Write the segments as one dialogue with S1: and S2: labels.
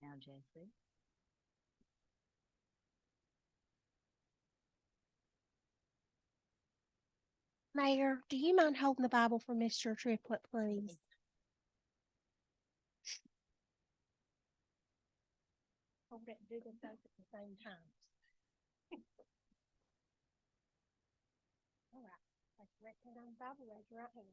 S1: now, Jesse.
S2: Mayor, do you mind holding the Bible for Mr. Triplet, please? Hold it, do them both at the same time. All right, place your right hand on the Bible, raise your right hand.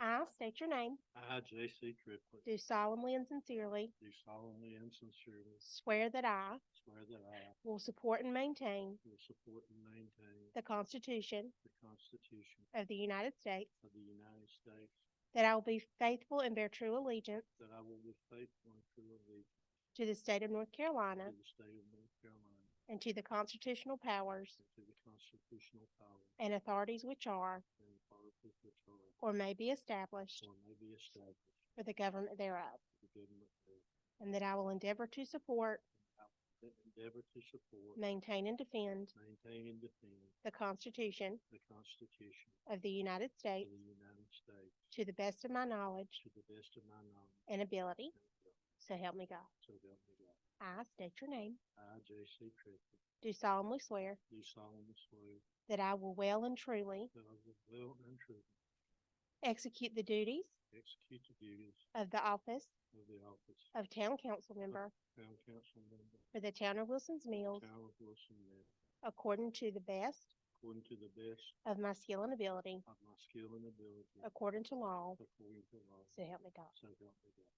S2: I state your name,
S3: I, J.C. Triplett,
S2: do solemnly and sincerely
S3: do solemnly and sincerely
S2: swear that I
S3: swear that I
S2: will support and maintain
S3: will support and maintain
S2: the Constitution
S3: the Constitution
S2: of the United States,
S3: of the United States,
S2: that I will be faithful and bear true allegiance
S3: that I will be faithful and true allegiance
S2: to the state of North Carolina
S3: to the state of North Carolina,
S2: and to the constitutional powers
S3: and to the constitutional powers
S2: and authorities which are
S3: and authorities which are
S2: or may be established
S3: or may be established
S2: for the government thereof,
S3: for the government thereof,
S2: and that I will endeavor to support,
S3: that endeavor to support,
S2: maintain, and defend
S3: maintain, and defend
S2: the Constitution
S3: the Constitution
S2: of the United
S3: of
S2: States
S3: the United States
S2: to the best of my knowledge
S3: to the best of my knowledge
S2: and ability,
S3: and ability,
S2: so help me God.
S3: so help me God.
S2: I state your name,
S3: I, J.C. Triplett,
S2: do solemnly swear
S3: do solemnly swear
S2: that I will well and truly
S3: that I will well and truly
S2: execute the duties
S3: execute the duties
S2: of the office
S3: of the office of
S2: of Town Council Member
S3: Town Council Member,
S2: for the Town of Wilson's Mills
S3: Town of Wilson, Maryland,
S2: according to the best
S3: according to the best
S2: of my skill and ability,
S3: of my skill and ability,
S2: according to law,
S3: according to law,
S2: so help me God.
S3: so help me God.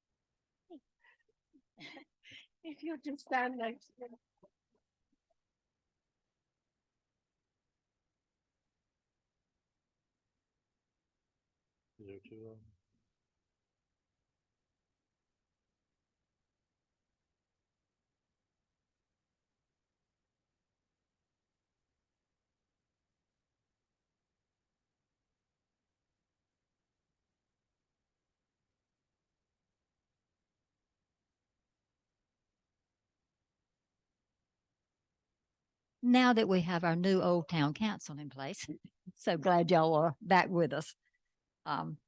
S2: If you'll just sign those.
S3: Is there um, two of them?
S1: Now that we have our new Old Town Council in place, so glad y'all are back with us. Um,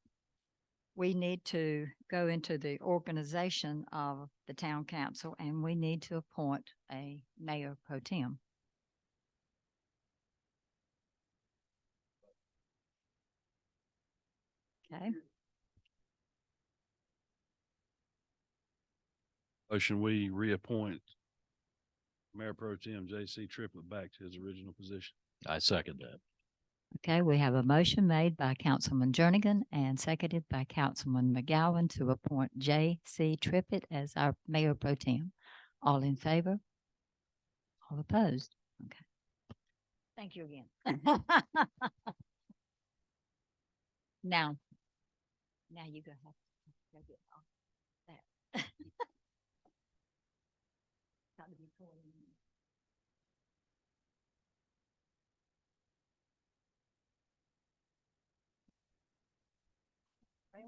S1: we need to go into the organization of the town council and we need to appoint a mayor pro tem. Okay,
S4: Motion, Oh, we reappoint Mayor Pro Tem J.C. Triplett back to his original position. I second that.
S1: okay, we have a motion made by Councilman Jernigan and seconded by Councilman McGowan to appoint J. C. Trippett as our mayor pro tem. All in favor? All opposed? Okay. Thank you again. Now, now you go have to go get all that. Got to be pulling in.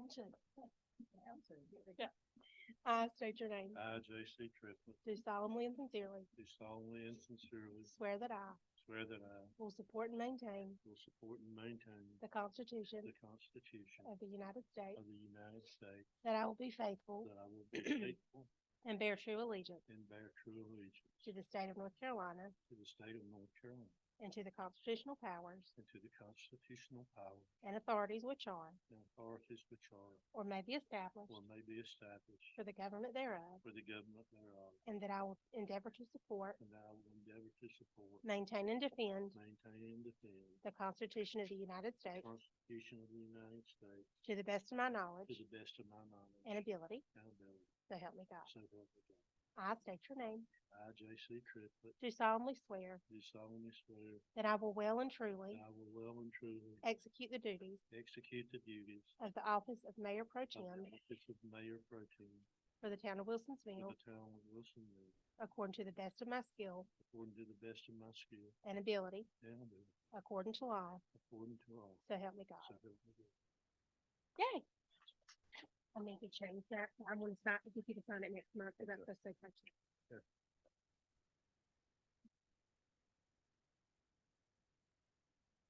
S2: I state your name,
S3: I, J.C. Triplett,
S2: do solemnly and sincerely
S3: do solemnly and sincerely
S2: swear that I
S3: swear that I
S2: will support and maintain
S3: will support and maintain
S2: the Constitution
S3: the Constitution
S2: of the United States,
S3: of the United States,
S2: that I will be faithful
S3: that I will be faithful
S2: and bear true allegiance
S3: and bear true allegiance
S2: to the state of North Carolina
S3: to the state of North Carolina,
S2: and to the constitutional powers
S3: and to the constitutional powers
S2: and authorities which are
S3: and authorities which are
S2: or may be established
S3: or may be established
S2: for the government thereof,
S3: for the government thereof,
S2: and that I will endeavor to support,
S3: and that I will endeavor to support,
S2: maintain, and defend
S3: maintain, and defend
S2: the Constitution of the United
S3: the
S2: States
S3: Constitution of the United States
S2: to the best of my
S3: to
S2: knowledge
S3: the best of my knowledge
S2: and ability,
S3: and ability,
S2: so help me God.
S3: so help me God.
S2: I state your name,
S3: I, J.C. Triplett,
S2: do solemnly swear
S3: do solemnly swear
S2: that I will well and
S3: that
S2: truly
S3: I will well and truly
S2: execute the duties
S3: execute the duties
S2: of the office of Mayor Pro
S3: of the
S2: Tem
S3: office of Mayor Pro Tem
S2: for the town of Wilson's
S3: for
S2: Mills
S3: the town of Wilsonville,
S2: according to the best of my skill
S3: according to the best of my skill
S2: and ability,
S3: and ability,
S2: according to law,
S3: according to law,
S2: so help me God.
S3: so help me God.
S2: Yay. I am going to change that. I'm gonna sign, if you could sign it next month, if that's okay.